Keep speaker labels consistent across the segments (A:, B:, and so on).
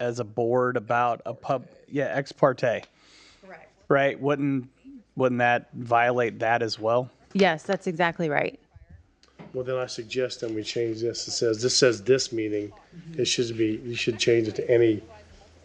A: as a board about a pub, yeah, ex parte,
B: Correct.
A: right? Wouldn't, wouldn't that violate that as well?
B: Yes, that's exactly right.
C: Well, then I suggest then we change this. It says, this says this meeting. It should be, you should change it to any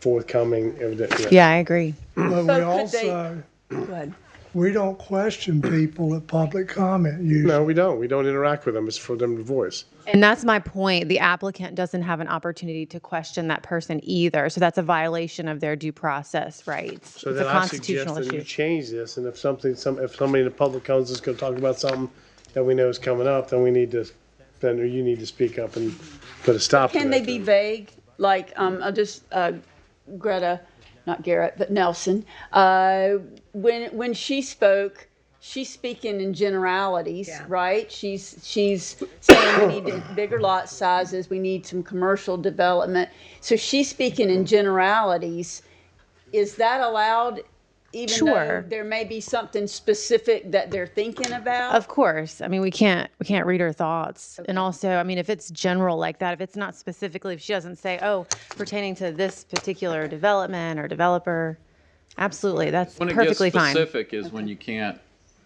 C: forthcoming evident.
B: Yeah, I agree.
D: But we
E: So could they-
D: also,
E: Go ahead.
D: we don't question people at public comment usually.
C: No, we don't. We don't interact with them. It's for them to voice.
B: And that's my point. The applicant doesn't have an opportunity to question that person either. So that's a violation of their due process rights.
C: So
B: It's a
C: then I suggest
B: constitutional
C: that you
B: issue.
C: change this, and if something, some, if somebody in the public comes is gonna talk about something that we know is coming up, then we need to, then you need to speak up and put a stop to that.
E: Can they be
C: then.
E: vague? Like, um, I'll just, uh, Greta, not Garrett, but Nelson, uh, when, when she spoke, she's speaking in generalities, right? She's, she's saying we need bigger lot sizes, we need some commercial development. So she's speaking in generalities. Is that allowed? Even though
B: Sure.
E: there may be something specific that they're thinking about?
B: Of course. I mean, we can't we can't read her thoughts. And also, I mean, if it's general like that, if it's not specifically, if she doesn't say, "Oh, pertaining to this particular development or developer," absolutely, that's
F: When it gets
B: perfectly fine.
F: specific is when you can't,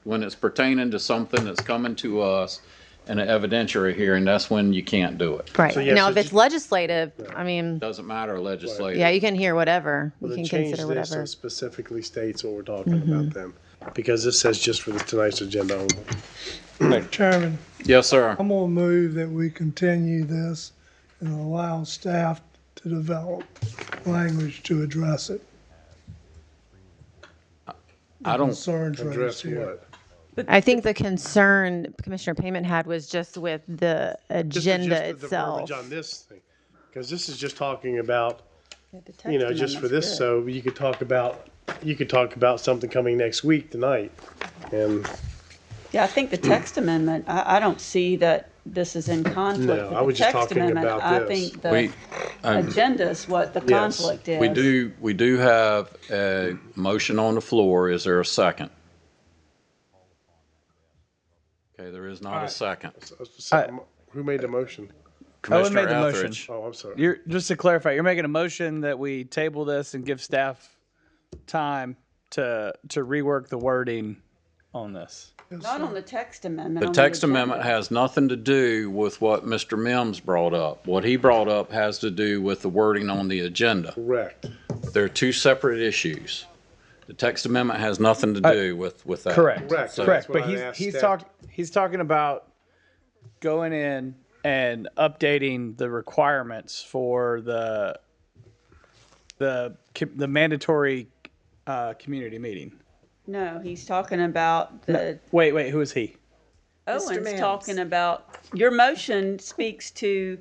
F: when it's pertaining to something that's coming to us in an evidentiary hearing, that's when you can't do it.
B: Right.
C: yeah,
B: now,
C: so
B: if it's
C: ju-
B: legislative, I mean,
F: Doesn't matter legislative.
B: yeah, you can hear whatever.
C: Well,
B: you
C: then
B: can
C: change
B: consider
C: this
B: whatever. Mm-hmm.
C: and specifically states what we're talking about then, because this says just for the- tonight's agenda only.
D: Chairman,
F: Yes, sir.
D: I'm gonna move that we continue this and allow staff to develop language to address it.
F: I don't,
D: Concerns raised
C: Address
D: here.
C: what?
B: I think the concern Commissioner Payment had was just with the
C: This is just
B: agenda
C: the verbiage
B: itself.
C: On this thing, because this is just talking about, you know, just for this, so you could talk about, you could talk about something coming next week tonight, and.
E: Yeah, I think the text amendment, I, I don't see that this is in conflict
C: No,
E: with the
C: I was just
E: text
C: talking
E: amendment.
C: about
E: I
C: this.
E: think the
F: we, um,
E: agenda is what the
C: Yes,
E: conflict is.
F: we do, we do have a motion on the floor. Is there a second? Okay, there is not a second.
C: Who made the motion?
A: Owen
F: Commissioner
A: made the motion.
F: Etheridge.
C: Oh, I'm sorry.
A: You're, just to clarify, you're making a motion that we table this and give staff time to, to rework the wording on this.
E: Not on the text amendment.
F: The
E: on
F: text
E: agenda.
F: amendment has nothing to do with what Mr. Mims brought up. What he brought up has to do with the wording on the agenda.
C: Correct.
F: They're two separate issues. The text amendment has nothing to do with, with that.
C: Uh, Correct.
F: So-
C: That's
A: Correct,
C: what
A: but
C: I
A: he's
C: asked
A: he's
C: staff.
A: talking he's talking about going in and updating the requirements for the the co- the mandatory uh, community meeting.
E: No, he's talking about the,
A: Wait, wait, who is he?
E: Owen's talking about, your motion speaks to.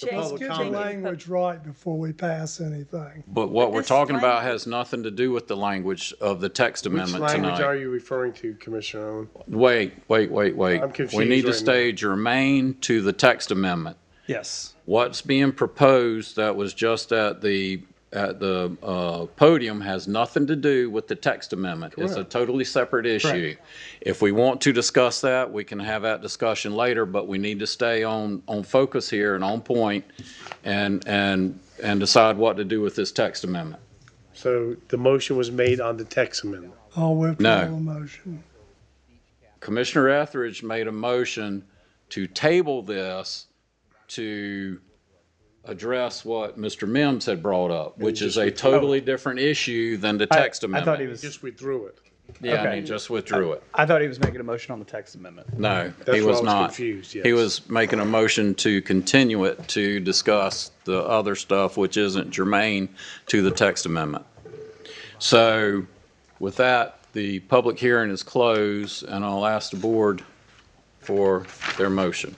C: public
D: Get the
C: Comment.
D: language right before we pass anything.
F: But what we're
E: this
F: talking about
E: language-
F: has nothing to do with the language of the text
C: Which
F: amendment
C: language are
F: tonight.
C: you referring to, Commissioner Owen?
F: Wait, wait, wait, wait.
C: I'm confused
F: We need to
C: right now.
F: stay germane to the text amendment.
A: Yes.
F: What's being proposed that was just at the, at the uh, podium has nothing to do with the text amendment. It's a totally separate issue. If we want to discuss that, we can have that discussion later, but we need to stay on, on focus here and on point and, and, and decide what to do with this text amendment.
C: So the motion was made on the text amendment.
D: I'll withdraw
F: No.
D: the motion.
F: Commissioner Etheridge made a motion to table this to address what Mr. Mims had brought up, which is a totally different issue than the text
A: I
F: amendment.
A: thought he
C: You
A: was
C: Just withdrew it.
F: Yeah, and he
A: okay.
F: just withdrew it.
A: I thought he was making a motion on the text amendment.
F: No,
C: why
F: he
C: I
F: was
C: was
F: not.
C: confused,
F: He
C: yes.
F: was making a motion to continue it to discuss the other stuff which isn't germane to the text amendment. So with that, the public hearing is closed, and I'll ask the board for their motion.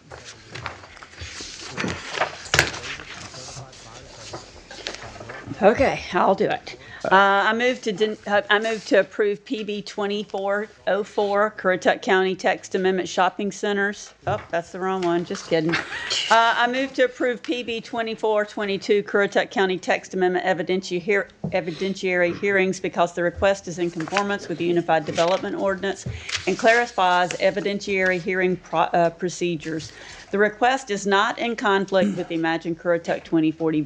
E: Okay, I'll do it. Uh, I move to, den- uh, I move to approve PB 2404, Currituck County Text Amendment Shopping Centers. Oh, that's the wrong one, just kidding. Uh, I move to approve PB 2422, Currituck County Text Amendment evidenti- hear- Evidentiary Hearings because the request is in conformance with the Unified Development Ordinance and clarifies evidentiary hearing pro- uh, procedures. The request is not in conflict with the Imagine Currituck 2040